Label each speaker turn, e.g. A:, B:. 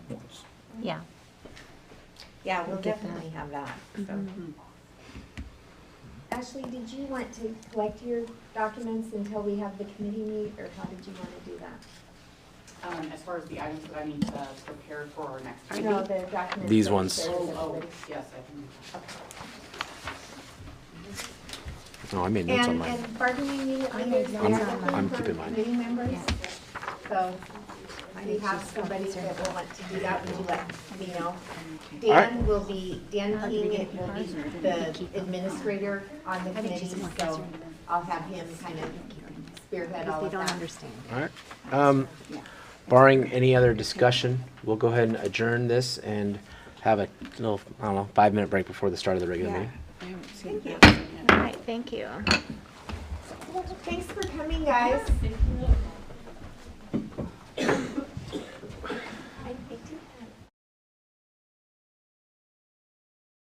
A: points.
B: yeah.
C: Yeah, we'll
B: We'll get Mm-hmm.
C: definitely have that, so.
D: Ashley, did you want to collect your documents until we have the committee meet, or how did you want to do that?
E: Um, as far as the items that I need to prepare for our next meeting.
D: No, the documents.
F: These
D: that we
F: ones.
D: shared with
E: Oh, oh,
D: everybody.
E: yes, I can. do that.
F: No, I made notes on
C: And,
F: mine.
C: and bargaining unit
B: I'm-
C: leaders, we
B: I'm-
C: have
F: I'm
C: looking for
F: keeping mine.
C: committee members.
B: Yeah.
C: So we have somebody that will want to do that, would you let me know? Dan
F: Alright.
C: will be, Dan
B: How did we
C: King
B: get
C: will be
B: ours, or did we
C: the
B: keep them?
C: administrator on the
B: I think
C: committee,
B: she's more
C: so
B: concerned about-
C: I'll have him kind of spearhead
B: Because
C: all
B: they
C: of
B: don't
C: that.
B: understand.
F: All right. Um, barring any other discussion, we'll go ahead and adjourn this and have a little, I don't know, five-minute break before the start of the regular meeting.
C: Thank you.
B: All right, thank you.
C: Thanks for coming, guys.
D: I, I do have